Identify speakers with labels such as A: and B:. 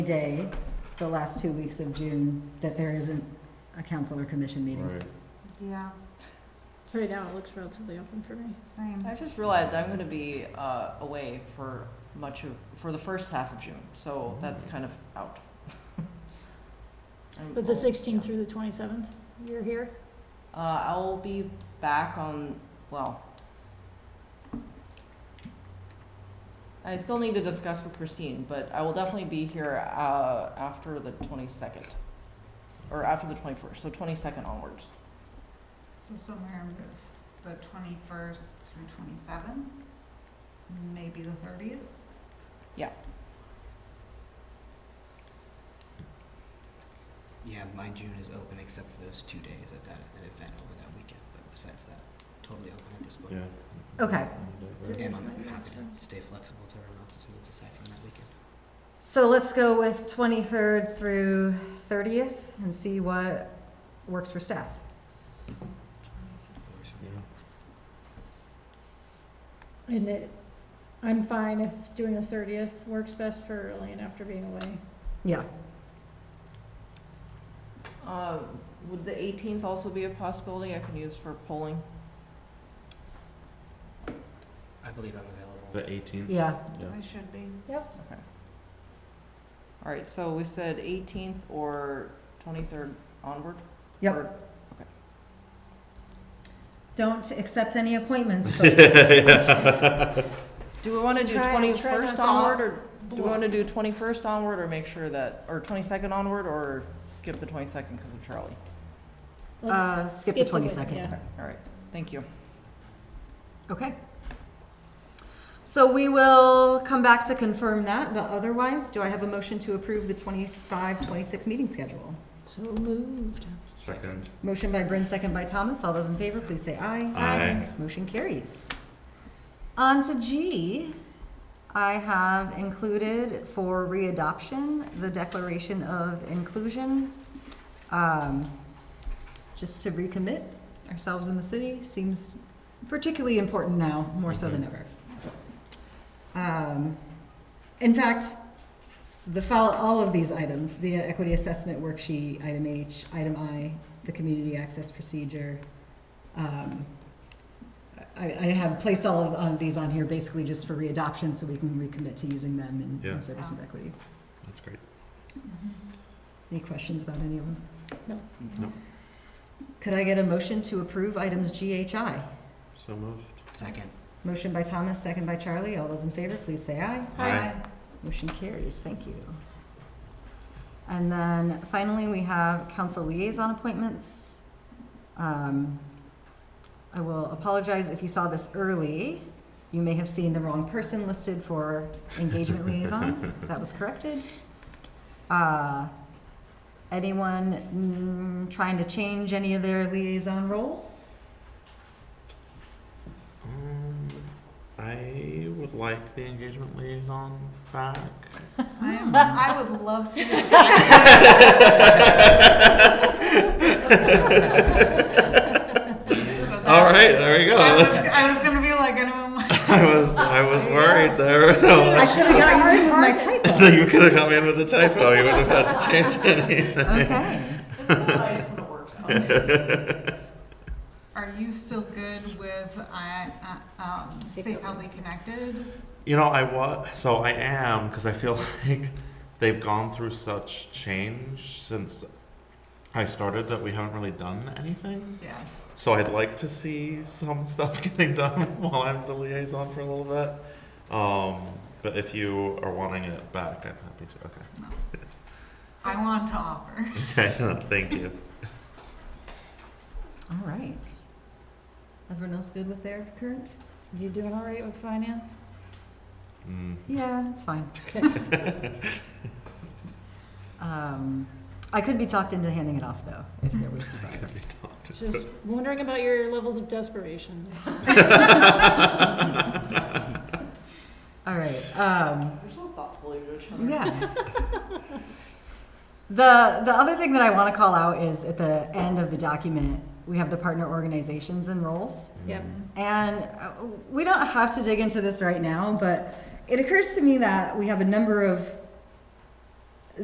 A: day, the last two weeks of June, that there isn't a council or commission meeting.
B: Right.
C: Yeah,
D: Right now, it looks relatively open for me.
C: same.
E: I just realized I'm gonna be, uh, away for much of, for the first half of June, so that's kind of out. I'm-
D: But the
E: I'll-
D: 16th
E: yeah.
D: through the 27th, you're here?
E: Uh, I'll be back on, well. I still need to discuss with Christine, but I will definitely be here, uh, after the twenty-second. Or after the twenty-first, so twenty-second onwards.
C: So somewhere the twenty-first through twenty-seventh, maybe the thirtieth?
F: Yeah, my June is open except for those two days. I've got an event over that weekend, but besides that, totally open at this point.
B: Yeah.
A: Okay,
F: And
D: Right.
F: I'm happy to stay flexible to everyone else's needs aside from that weekend.
A: so let's go with twenty-third through thirtieth and see what works for staff.
F: Works for me.
B: Yeah.
D: And it, I'm fine if doing the 30th works best for Elaine after being away.
A: Yeah,
E: Uh, would the eighteenth also be a possibility I can use for polling?
F: I believe I'm available.
B: The 18th.
A: yeah,
B: Yeah.
C: I should be.
E: All right, so we said eighteenth or twenty-third onward?
A: Yep.
E: Or-
A: don't accept any appointments, folks.
E: Do we wanna do
D: Sorry, I'm trying not
E: twenty-first
D: to
E: onward, or do we wanna do twenty-first onward, or make sure that, or twenty-second onward, or skip the twenty-second because of Charlie?
D: Let's
A: Uh, skip the
D: week-
A: 22nd.
D: yeah.
E: All right, thank you.
A: Okay. So we will come back to confirm that, but otherwise, do I have a motion to approve the 25-26 meeting schedule?
D: So moved.
B: Second.
A: Motion by Bryn, second by Thomas. All those in favor, please say aye.
B: Aye.
A: Motion carries. On to G, I have included for readoption the Declaration of Inclusion. Um, Just to recommit ourselves in the city seems particularly important now, more so than ever. Um, In fact, the, fol- all of these items, the equity assessment worksheet, item H, item I, the community access procedure, um, I, I have placed all of um, these on here basically just for readoption so we can recommit to using them in,
B: Yeah.
A: in service of equity.
B: That's great.
C: Mm-hmm.
A: Any questions about any of them?
D: No.
B: No.
A: Could I get a motion to approve items GHI?
B: So moved.
F: Second.
A: Motion by Thomas, second by Charlie. All those in favor, please say aye.
B: Aye.
A: Motion carries, thank you. And then finally, we have council liaison appointments. Um, I will apologize if you saw this early. You may have seen the wrong person listed for engagement liaison. That was corrected. Uh, Anyone mm, trying to change any of their liaison roles?
B: Um, I would like the engagement liaison back.
C: I am, I would love to.
B: All right, there we go.
C: I was,
B: Oh, That's,
C: I was gonna be like, anyone,
B: I was I was worried there.
A: I should have got you with my typo.
B: you could have come in with a typo. You would have had to change anything.
A: Okay.
C: are you still good with, I, uh, um, Safely Connected?
D: Mm-hmm.
B: You know, I was so I am because I feel like they've gone through such change since I started that we haven't really done anything.
C: Yeah.
B: So I'd like to see some stuff getting done while I'm the liaison for a little bit. Um, but if you are wanting it back, I'm happy to. Okay.
C: I want to offer.
B: Okay. Thank you.
A: All right. Everyone else good with their current?
D: You doing all right with finance?
B: Mm.
A: Yeah, that's fine. Um, I could be talked into handing it off, though, if there was desire.
B: Could be talked.
D: Just wondering about your levels of desperation.
A: All right, um,
E: You're so thoughtful, you
A: yeah. The, the other thing that I want to call out is at the end of the document, we have the partner organizations and roles.
D: Yep.
A: And uh, we don't have to dig into this right now, but it occurs to me that we have a number of